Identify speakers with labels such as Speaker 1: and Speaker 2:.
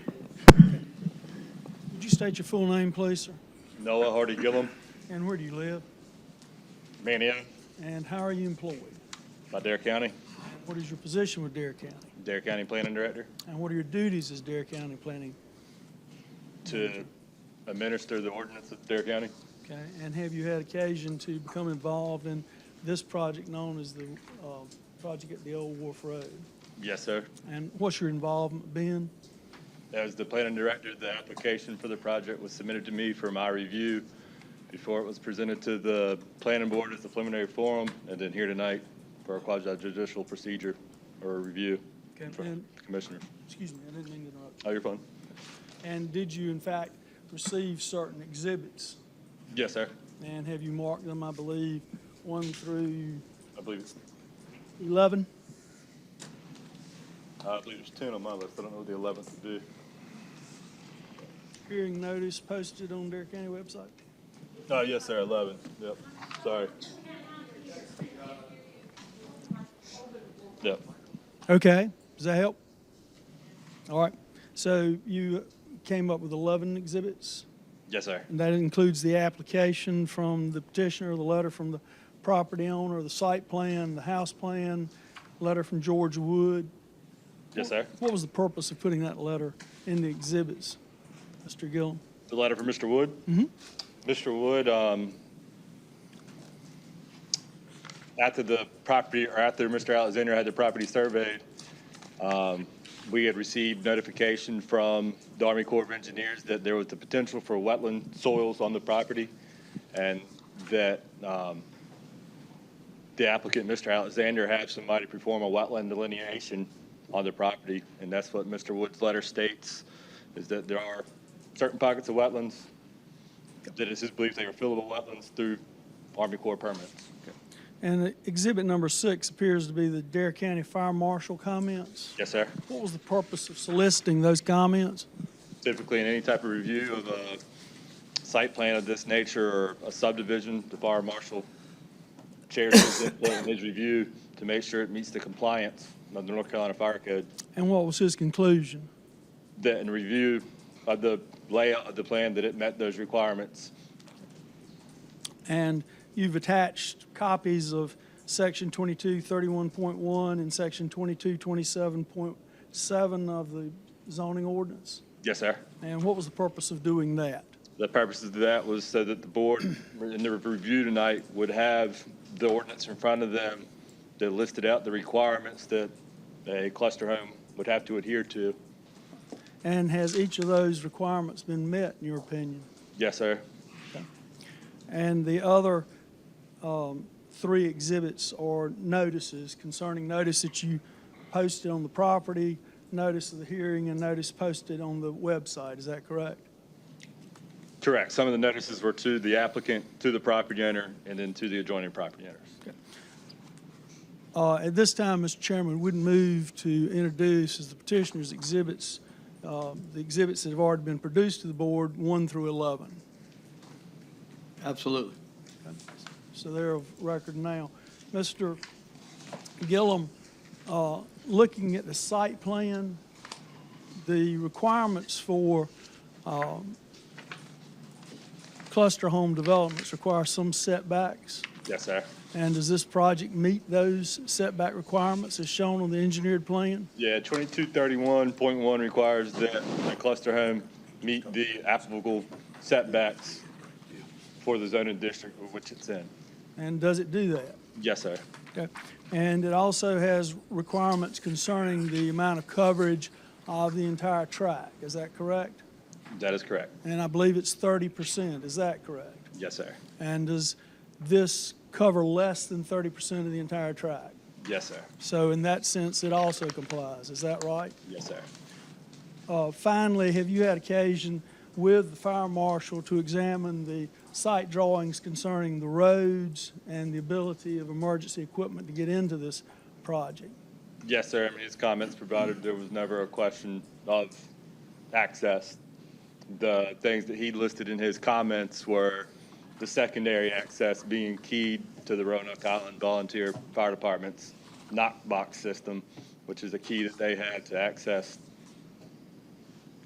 Speaker 1: Would you state your full name, please, sir?
Speaker 2: Noah Hardy Gillum,
Speaker 1: And where do you live?
Speaker 2: Manio,
Speaker 1: And how are you employed?
Speaker 2: by Dare County,
Speaker 1: What is your position with Dare County?
Speaker 2: Dare County Planning Director,
Speaker 1: And what are your duties as Dare County Planning?
Speaker 2: to administer the ordinance of Dare County.
Speaker 1: Okay, and have you had occasion to become involved in this project known as the uh, project at the Old Wharf Road?
Speaker 2: Yes, sir.
Speaker 1: And what's your involvement been?
Speaker 2: As the planning director, the application for the project was submitted to me for my review before it was presented to the planning board as the preliminary forum, and then here tonight for a quasi-judicial procedure or review
Speaker 1: Okay,
Speaker 2: from
Speaker 1: and-
Speaker 2: the commissioner.
Speaker 1: Excuse me, I didn't mean to interrupt.
Speaker 2: Oh, you're fine.
Speaker 1: And did you in fact receive certain exhibits?
Speaker 2: Yes, sir.
Speaker 1: And have you marked them, I believe, one through
Speaker 2: I believe, it's-
Speaker 1: 11?
Speaker 2: I believe there's ten on my list. I don't know what the eleventh would be.
Speaker 1: Hearing notice posted on Dare County website?
Speaker 2: Oh, yes, sir, eleven. Yep, sorry. Yep.
Speaker 1: Okay, does that help? All right, so you came up with 11 exhibits?
Speaker 2: Yes, sir.
Speaker 1: And that includes the application from the petitioner, the letter from the property owner, the site plan, the house plan, letter from George Wood.
Speaker 2: Yes, sir.
Speaker 1: What was the purpose of putting that letter in the exhibits, Mr. Gillum?
Speaker 2: The letter from Mr. Wood? Mr. Wood, um, after the property, or after Mr. Alexander had the property surveyed, um, we had received notification from the Army Corps of Engineers that there was the potential for wetland soils on the property, and that um, the applicant, Mr. Alexander, had somebody perform a wetland delineation on the property, and that's what Mr. Wood's letter states, is that there are certain pockets of wetlands that it's his belief they are fillable wetlands through Army Corps permits.
Speaker 1: And exhibit number six appears to be the Dare County Fire Marshal comments.
Speaker 2: Yes, sir.
Speaker 1: What was the purpose of soliciting those comments?
Speaker 2: Typically, in any type of review of a site plan of this nature or a subdivision, the fire marshal chairs his input and his review to make sure it meets the compliance of the North Carolina Fire Code.
Speaker 1: And what was his conclusion?
Speaker 2: That in review of the layout of the plan, that it met those requirements.
Speaker 1: And you've attached copies of section 2231.1 and section 2227.7 of the zoning ordinance.
Speaker 2: Yes, sir.
Speaker 1: And what was the purpose of doing that?
Speaker 2: The purpose of that was so that the board, in their review tonight, would have the ordinance in front of them that listed out the requirements that a cluster home would have to adhere to.
Speaker 1: And has each of those requirements been met, in your opinion?
Speaker 2: Yes, sir.
Speaker 1: And the other um, three exhibits are notices concerning notice that you posted on the property, notice of the hearing, and notice posted on the website. Is that correct?
Speaker 2: Correct. Some of the notices were to the applicant, to the property owner, and then to the adjoining property owners.
Speaker 1: Uh, At this time, Mr. Chairman, we'd move to introduce as the petitioner's exhibits, uh, the exhibits that have already been produced to the board, 1 through 11.
Speaker 3: Absolutely.
Speaker 1: So they're of record now. Mr. Gillum, uh, looking at the site plan, the requirements for um, cluster home developments require some setbacks.
Speaker 2: Yes, sir.
Speaker 1: And does this project meet those setback requirements as shown on the engineered plan?
Speaker 2: Yeah, 2231.1 requires that a cluster home meet the applicable setbacks for the zoning district of which it's in.
Speaker 1: And does it do that?
Speaker 2: Yes, sir.
Speaker 1: Okay. And it also has requirements concerning the amount of coverage of the entire track. Is that correct?
Speaker 2: That is correct.
Speaker 1: And I believe it's thirty percent. Is that correct?
Speaker 2: Yes, sir.
Speaker 1: And does this cover less than thirty percent of the entire track?
Speaker 2: Yes, sir.
Speaker 1: So in that sense, it also complies. Is that right?
Speaker 2: Yes, sir.
Speaker 1: Uh, Finally, have you had occasion with the fire marshal to examine the site drawings concerning the roads and the ability of emergency equipment to get into this project?
Speaker 2: Yes, sir. I mean, his comments provided there was never a question of access. The things that he listed in his comments were the secondary access being keyed to the Roanoke Island Volunteer Fire Department's knock box system, which is a key that they had to access